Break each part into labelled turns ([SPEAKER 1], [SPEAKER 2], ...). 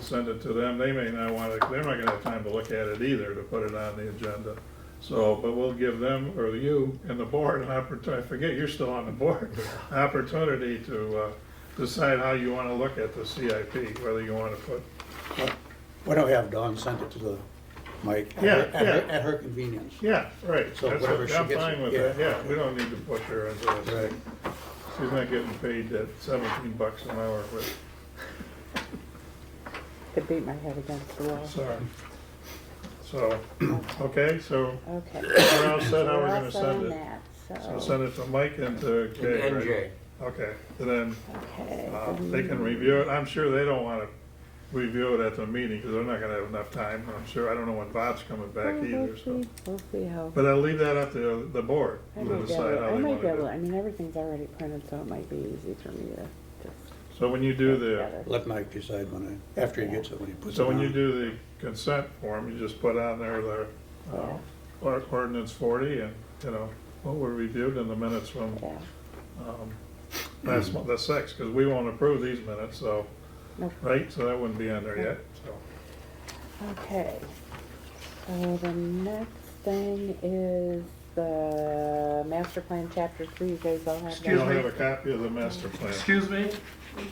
[SPEAKER 1] send it to them, they may not want to, they're not gonna have time to look at it either, to put it on the agenda. So, but we'll give them, or you and the board, an opportunity, I forget, you're still on the board, opportunity to uh, decide how you want to look at the CIP, whether you want to put,
[SPEAKER 2] Why don't we have Dawn send it to the, Mike? at her-
[SPEAKER 1] Yeah,
[SPEAKER 2] At her,
[SPEAKER 1] yeah.
[SPEAKER 2] at her convenience.
[SPEAKER 1] yeah, right.
[SPEAKER 2] So
[SPEAKER 1] that's
[SPEAKER 2] whatever
[SPEAKER 1] what-
[SPEAKER 2] she
[SPEAKER 1] I'm
[SPEAKER 2] gets,
[SPEAKER 1] fine with
[SPEAKER 2] yeah.
[SPEAKER 1] that, yeah, we don't need to push her into this.
[SPEAKER 2] Right.
[SPEAKER 1] She's not getting paid that seventeen bucks an hour, but,
[SPEAKER 3] To beat my head against the wall.
[SPEAKER 1] sorry. So, okay, so
[SPEAKER 3] Okay.
[SPEAKER 1] we're all set, how
[SPEAKER 3] We're
[SPEAKER 1] we're
[SPEAKER 3] all
[SPEAKER 1] gonna
[SPEAKER 3] set
[SPEAKER 1] send
[SPEAKER 3] on
[SPEAKER 1] it.
[SPEAKER 3] that,
[SPEAKER 1] So
[SPEAKER 3] So,
[SPEAKER 1] send it to Mike and to
[SPEAKER 4] to
[SPEAKER 1] Jay, right?
[SPEAKER 4] NJ.
[SPEAKER 1] Okay, and then
[SPEAKER 3] okay.
[SPEAKER 1] uh, they can review it, I'm sure they don't wanna review it at the meeting, because they're not gonna have enough time, I'm sure, I don't know when Bob's coming back
[SPEAKER 3] Oh,
[SPEAKER 1] either, so.
[SPEAKER 3] We'll see how.
[SPEAKER 1] But I'll leave that up to the board
[SPEAKER 3] I
[SPEAKER 1] to
[SPEAKER 3] may be able-
[SPEAKER 1] decide how
[SPEAKER 3] I
[SPEAKER 1] they
[SPEAKER 3] may
[SPEAKER 1] wanna
[SPEAKER 3] be
[SPEAKER 1] do
[SPEAKER 3] able,
[SPEAKER 1] it.
[SPEAKER 3] I mean, everything's already printed, so it might be easy for me to just.
[SPEAKER 1] So when you do
[SPEAKER 3] put
[SPEAKER 1] the,
[SPEAKER 3] together.
[SPEAKER 2] Let Mike decide when I, after he gets it, when he puts it
[SPEAKER 1] so
[SPEAKER 2] on.
[SPEAKER 1] when you do the consent form, you just put on there the, uh, or- ordinance forty and, you know, what we reviewed in the minutes from
[SPEAKER 3] Yeah,
[SPEAKER 1] um, last month, the sixth, because we won't approve these minutes, so,
[SPEAKER 3] Nope.
[SPEAKER 1] right, so that wouldn't be on there yet, so.
[SPEAKER 3] okay. So the next thing is the master plan chapter three, you guys all have that?
[SPEAKER 1] You
[SPEAKER 5] Excuse
[SPEAKER 1] don't
[SPEAKER 5] me?
[SPEAKER 1] have a copy of the master plan.
[SPEAKER 5] Excuse me,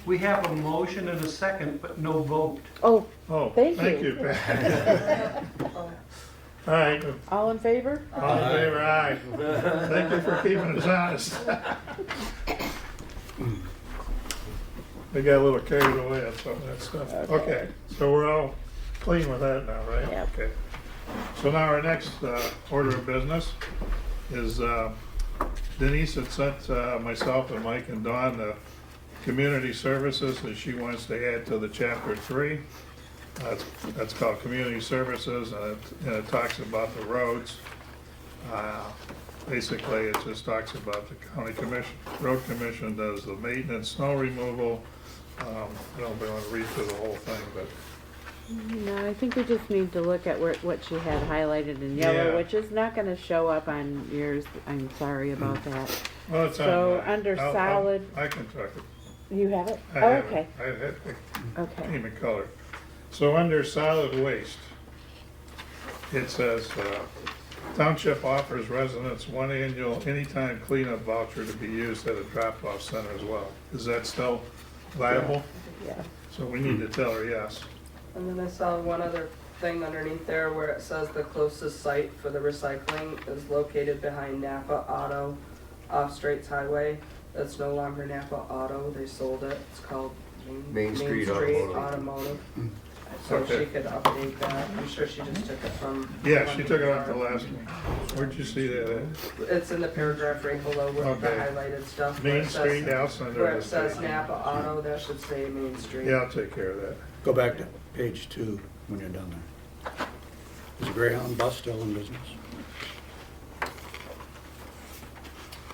[SPEAKER 5] we have a motion and a second, but no vote.
[SPEAKER 3] Oh,
[SPEAKER 1] Oh,
[SPEAKER 3] Thank
[SPEAKER 1] thank
[SPEAKER 3] you.
[SPEAKER 1] you, Pat. All right,
[SPEAKER 3] all in favor?
[SPEAKER 1] all in favor, aye. Thank you for keeping us honest. We got a little carried away on some of that stuff.
[SPEAKER 3] Okay.
[SPEAKER 1] Okay, so we're all clean with that now, right?
[SPEAKER 3] Yep.
[SPEAKER 1] Okay. So now our next uh, order of business is uh, Denise had sent uh, myself and Mike and Dawn the community services that she wants to add to the chapter three. That's, that's called community services, and it- and it talks about the roads. Uh, Basically, it just talks about the county commission, road commission does the maintenance, snow removal. Um, I don't want to read through the whole thing, but
[SPEAKER 3] No, I think we just need to look at where, what she had highlighted in
[SPEAKER 1] Yeah.
[SPEAKER 3] yellow, which is not gonna show up on yours, I'm sorry
[SPEAKER 1] Mm.
[SPEAKER 3] about that.
[SPEAKER 1] Well, it's on
[SPEAKER 3] So,
[SPEAKER 1] mine.
[SPEAKER 3] under
[SPEAKER 1] I'll- I'll-
[SPEAKER 3] solid-
[SPEAKER 1] I can talk it.
[SPEAKER 3] You have it?
[SPEAKER 1] I
[SPEAKER 3] Oh,
[SPEAKER 1] have it. Mm.
[SPEAKER 3] okay,
[SPEAKER 1] I had the
[SPEAKER 3] okay.
[SPEAKER 1] name and color. So under solid waste, it says, uh, township offers residents one annual anytime cleanup voucher to be used at a drop-off center as well. Is that still viable?
[SPEAKER 3] Yeah.
[SPEAKER 1] So we need to tell her yes.
[SPEAKER 6] And then I saw one other thing underneath there where it says the closest site for the recycling is located behind Napa Auto off Straits Highway. That's no longer Napa Auto, they sold it, it's called Main.
[SPEAKER 4] Main Street Automotive. Mm.
[SPEAKER 6] Automotive. So
[SPEAKER 1] Okay.
[SPEAKER 6] she could update that, I'm sure she just took it from.
[SPEAKER 1] Yeah, she took it off the last one. Where'd you see that? at?
[SPEAKER 6] It's in the paragraph right below with
[SPEAKER 1] Okay.
[SPEAKER 6] the highlighted stuff. where
[SPEAKER 1] Main
[SPEAKER 6] it says-
[SPEAKER 1] Street, House
[SPEAKER 6] Where
[SPEAKER 1] under
[SPEAKER 6] it says Napa Auto, that should say Main Street.
[SPEAKER 1] Yeah, I'll take care of that.
[SPEAKER 2] Go back to page two when you're done there. Is Greyhound bus still in business?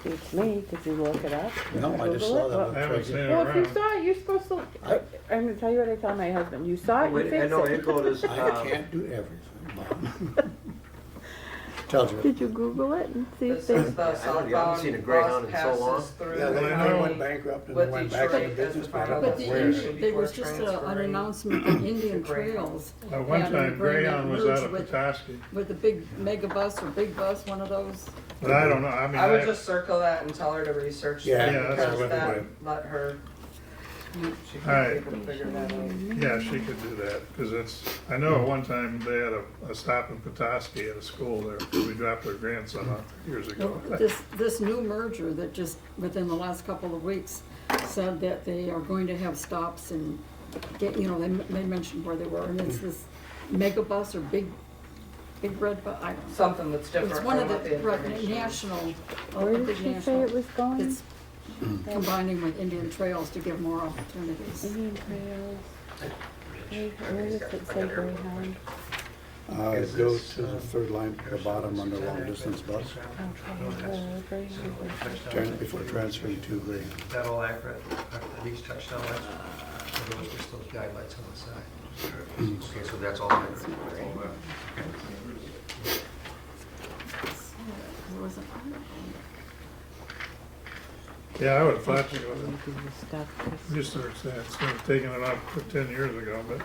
[SPEAKER 3] It's me, did you look it up? Oh,
[SPEAKER 2] No, I just saw
[SPEAKER 1] I
[SPEAKER 2] that.
[SPEAKER 1] haven't seen it
[SPEAKER 3] Well, if you
[SPEAKER 1] around.
[SPEAKER 3] saw it, you're supposed to, I- I'm gonna tell you what I tell my husband, you saw it, you
[SPEAKER 4] Wait, I know it
[SPEAKER 3] fix it.
[SPEAKER 4] goes,
[SPEAKER 2] I
[SPEAKER 4] um,
[SPEAKER 2] can't do everything, Bob. Tells you.
[SPEAKER 3] Did you Google it and see if
[SPEAKER 6] This
[SPEAKER 3] they,
[SPEAKER 6] is the
[SPEAKER 4] haven't- I haven't seen a
[SPEAKER 6] southbound
[SPEAKER 4] Greyhound
[SPEAKER 6] bus
[SPEAKER 4] in so long.
[SPEAKER 6] passes through.
[SPEAKER 2] Yeah,
[SPEAKER 6] the
[SPEAKER 2] they
[SPEAKER 6] county.
[SPEAKER 2] they went bankrupt and
[SPEAKER 6] with
[SPEAKER 2] then went back into
[SPEAKER 6] Detroit as the
[SPEAKER 2] business. but I
[SPEAKER 6] final
[SPEAKER 2] don't know
[SPEAKER 7] But the-
[SPEAKER 2] where.
[SPEAKER 6] destination.
[SPEAKER 7] there was
[SPEAKER 6] Before
[SPEAKER 7] just a- an
[SPEAKER 6] transferring
[SPEAKER 7] announcement on Indian
[SPEAKER 6] to Greyhound.
[SPEAKER 7] Trails.
[SPEAKER 1] At one
[SPEAKER 7] having to
[SPEAKER 1] time
[SPEAKER 7] bring that
[SPEAKER 1] Greyhound was out
[SPEAKER 7] merge
[SPEAKER 1] of
[SPEAKER 7] with-
[SPEAKER 1] Petoskey,
[SPEAKER 7] With the big mega bus or big bus, one of those.
[SPEAKER 1] but I don't know, I mean.
[SPEAKER 6] I would just circle that and tell her to research
[SPEAKER 2] Yeah.
[SPEAKER 6] that
[SPEAKER 2] Yeah,
[SPEAKER 1] that's
[SPEAKER 6] because
[SPEAKER 1] what I
[SPEAKER 6] that
[SPEAKER 1] would.
[SPEAKER 6] let her, she
[SPEAKER 1] Alright.
[SPEAKER 6] can she can figure that out.
[SPEAKER 1] Yeah, she could do that, because it's, I know at one time they had a, a stop in Petoskey at a school there, 'cause we dropped our grandson off years ago.
[SPEAKER 7] This, this new merger that just, within the last couple of weeks, said that they are going to have stops and get, you know, they, they mentioned where they were, and it's this mega bus or big, big red bu, I don't know.
[SPEAKER 6] Something that's
[SPEAKER 7] It's
[SPEAKER 6] different
[SPEAKER 7] one
[SPEAKER 6] from
[SPEAKER 7] of
[SPEAKER 6] what the
[SPEAKER 7] the, right,
[SPEAKER 6] information. is.
[SPEAKER 7] national, a
[SPEAKER 3] where did
[SPEAKER 7] big
[SPEAKER 3] she say it
[SPEAKER 7] national.
[SPEAKER 3] was going?
[SPEAKER 7] It's combining with Indian Trails to give more opportunities.
[SPEAKER 3] Indian Trails. Where where does it say Greyhound?
[SPEAKER 2] Uh, it goes to the third line at the bottom under long distance bus,
[SPEAKER 3] Okay, uh, Greyhound was-
[SPEAKER 2] Tran- before transferring to Greyhound.
[SPEAKER 5] That'll accurate, at least touchdown, that's, those are still guidelines on the side.
[SPEAKER 4] okay, so that's all accurate.
[SPEAKER 7] There was an article.
[SPEAKER 1] Yeah, I would have thought she
[SPEAKER 3] Making the stuff.
[SPEAKER 1] researched that, instead of taking it off ten years ago, but.